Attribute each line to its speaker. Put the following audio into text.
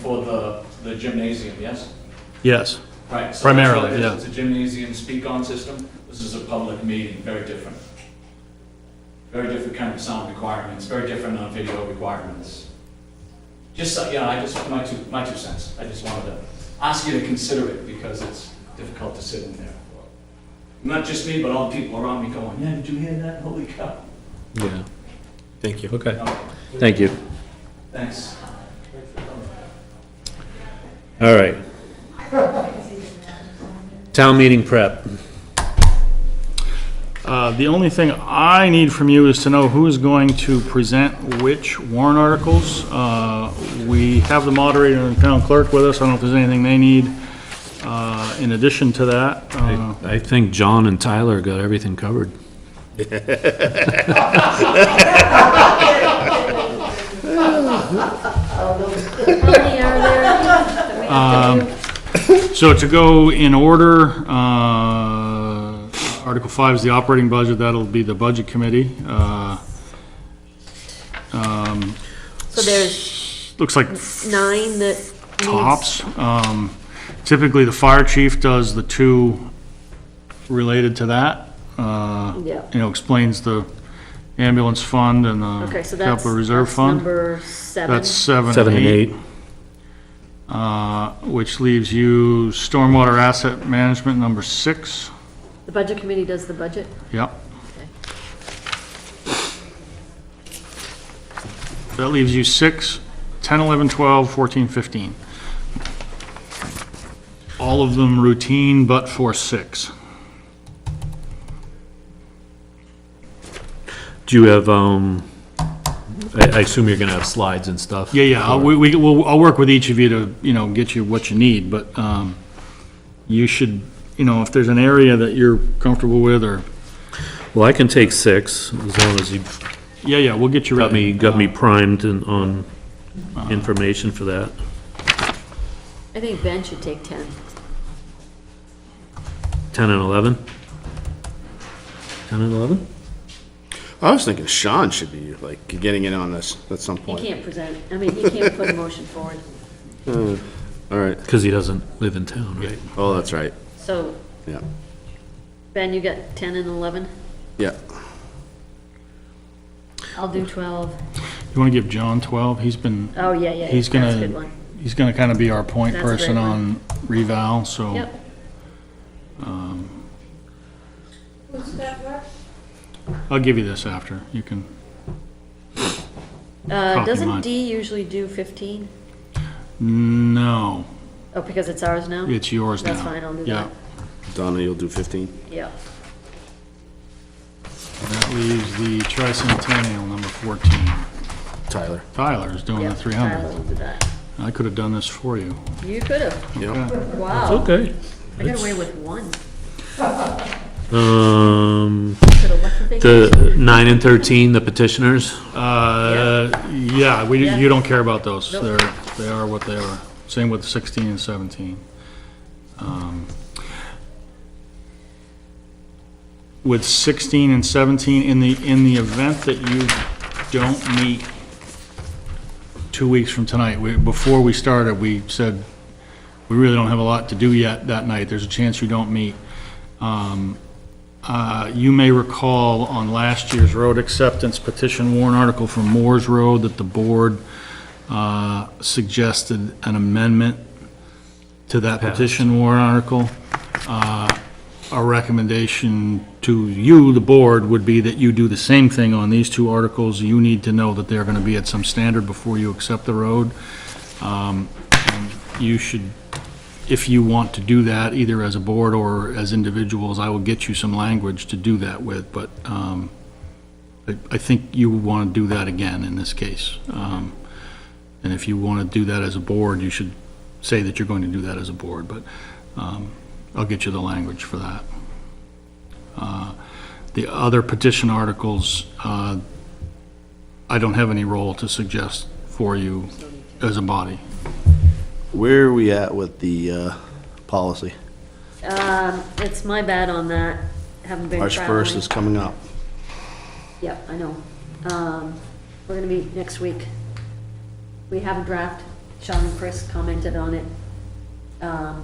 Speaker 1: For the, the gymnasium, yes?
Speaker 2: Yes,
Speaker 1: Right. so that's what
Speaker 2: Primarily,
Speaker 1: it is.
Speaker 2: yeah.
Speaker 1: It's a gymnasium speak-on system. This is a public meeting, very different. Very different kind of sound requirements, very different on video requirements. Just, so- you know, I just, my two, my two cents. I just wanted to ask you to consider it because it's difficult to sit in there. Not just me, but all the people around me going, yeah, did you hear that? Holy cow.
Speaker 2: yeah,
Speaker 3: Thank you.
Speaker 2: okay,
Speaker 1: Okay,
Speaker 2: thank you.
Speaker 1: Thanks.
Speaker 2: All right. Town meeting prep.
Speaker 4: Uh, The only thing I need from you is to know who is going to present which warrant articles. Uh, We have the moderator and town clerk with us, I don't know if there's anything they need uh, in addition to that. Uh,
Speaker 2: I think John and Tyler got everything covered.
Speaker 5: How many are there that we have
Speaker 4: Um,
Speaker 5: to do?
Speaker 4: So to go in order, uh, Article 5 is the operating budget, that'll be the budget committee. Uh, um,
Speaker 6: So there's
Speaker 4: Looks like
Speaker 6: nine that needs.
Speaker 4: tops. Um, Typically, the fire chief does the two related to that. uh,
Speaker 6: Yeah.
Speaker 4: You know, explains the ambulance fund and the
Speaker 6: Okay, so that's,
Speaker 4: capital reserve
Speaker 6: that's
Speaker 4: fund.
Speaker 6: number seven.
Speaker 4: That's seven
Speaker 2: Seven and eight,
Speaker 4: uh, Which leaves you stormwater asset management, number six.
Speaker 6: The budget committee does the budget?
Speaker 4: Yep. That leaves you six, 10, 11, 12, 14, 15. All of them routine but for six.
Speaker 2: Do you have, um, I, I assume you're gonna have slides and stuff?
Speaker 4: Yeah, yeah, I'll- we, we, we'll- I'll work with each of you to, you know, get you what you need, but, um, you should, you know, if there's an area that you're comfortable with or,
Speaker 2: Well, I can take six, as long as you
Speaker 4: yeah, yeah, we'll get you
Speaker 2: got me,
Speaker 4: ready.
Speaker 2: got me primed in- on information for that.
Speaker 6: I think Ben should take 10.
Speaker 2: Ten and eleven? Ten and eleven?
Speaker 3: I was thinking Sean should be like getting in on this at some
Speaker 6: He
Speaker 3: point.
Speaker 6: can't present, I mean, he can't put a motion forward.
Speaker 3: All right.
Speaker 2: Cause he doesn't live in town, right?
Speaker 3: Oh, that's right.
Speaker 6: So,
Speaker 3: Yeah.
Speaker 6: Ben, you got 10 and 11?
Speaker 3: Yeah.
Speaker 6: I'll do 12.
Speaker 4: You wanna give John 12? He's been,
Speaker 6: Oh, yeah, yeah,
Speaker 4: He's
Speaker 6: that's a good
Speaker 4: gonna,
Speaker 6: one.
Speaker 4: he's gonna kinda be our point
Speaker 6: That's a great
Speaker 4: person
Speaker 6: one.
Speaker 4: on reval, so.
Speaker 6: Yep,
Speaker 4: I'll give you this after, you can,
Speaker 6: uh,
Speaker 4: Copy mine.
Speaker 6: doesn't D usually do 15?
Speaker 4: no,
Speaker 6: Oh, because it's ours now?
Speaker 4: it's yours now.
Speaker 6: That's fine, I'll do
Speaker 4: Yeah.
Speaker 6: that.
Speaker 3: Donna, you'll do 15.
Speaker 6: Yeah.
Speaker 4: That leaves the tricentennial, number 14.
Speaker 3: Tyler.
Speaker 4: Tyler's doing
Speaker 6: Yeah,
Speaker 4: the
Speaker 6: Tyler
Speaker 4: 300.
Speaker 6: will do that.
Speaker 4: I could have done this for you.
Speaker 6: You could have,
Speaker 3: Yeah.
Speaker 6: wow,
Speaker 2: Okay.
Speaker 6: I got away with one.
Speaker 2: Um,
Speaker 6: Could have left the thing.
Speaker 2: the nine and thirteen, the petitioners?
Speaker 4: Uh, yeah, we,
Speaker 6: Yeah.
Speaker 4: you don't care about those. They're,
Speaker 6: Nope.
Speaker 4: they are what they are. Same with 16 and 17. Um, With 16 and 17, in the, in the event that you don't meet two weeks from tonight, we, before we started, we said, we really don't have a lot to do yet that night. There's a chance you don't meet. Uh, You may recall on last year's road acceptance petition warrant article from Moore's Road that the board uh, suggested an amendment to that petition warrant article. Uh, Our recommendation to you, the board, would be that you do the same thing on these two articles. You need to know that they're going to be at some standard before you accept the road. Um, and You should if you want to do that, either as a board or as individuals, I will get you some language to do that with, but um, I I think you would want to do that again in this case. Um, And if you want to do that as a board, you should say that you're going to do that as a board, but um, I'll get you the language for that. Uh, The other petition articles, uh, I don't have any role to suggest for you as a body.
Speaker 3: Where are we at with the uh, policy?
Speaker 6: Um, it's my bad on that, haven't been
Speaker 3: March
Speaker 6: traveling.
Speaker 3: 1st is coming up.
Speaker 6: Yep, I know. Um, we're gonna meet next week. We have a draft, Sean and Chris commented on it. Um,